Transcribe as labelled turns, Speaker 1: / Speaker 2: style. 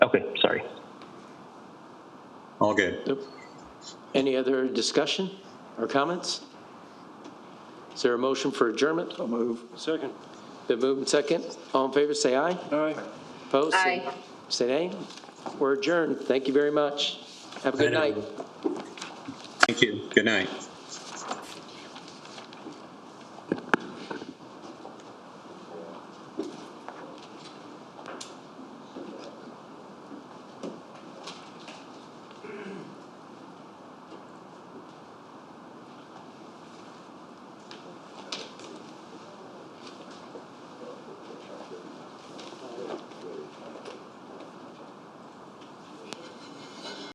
Speaker 1: Okay, sorry.
Speaker 2: All good.
Speaker 3: Any other discussion or comments? Is there a motion for adjournment? I'll move.
Speaker 4: Second.
Speaker 3: Been moved and second. All in favor, say aye.
Speaker 4: Aye.
Speaker 3: Opposed? say-
Speaker 5: Aye.
Speaker 3: Say nay. We're adjourned. Thank you very much. Have a good
Speaker 2: Aye.
Speaker 3: night.
Speaker 2: Thank you. Good night.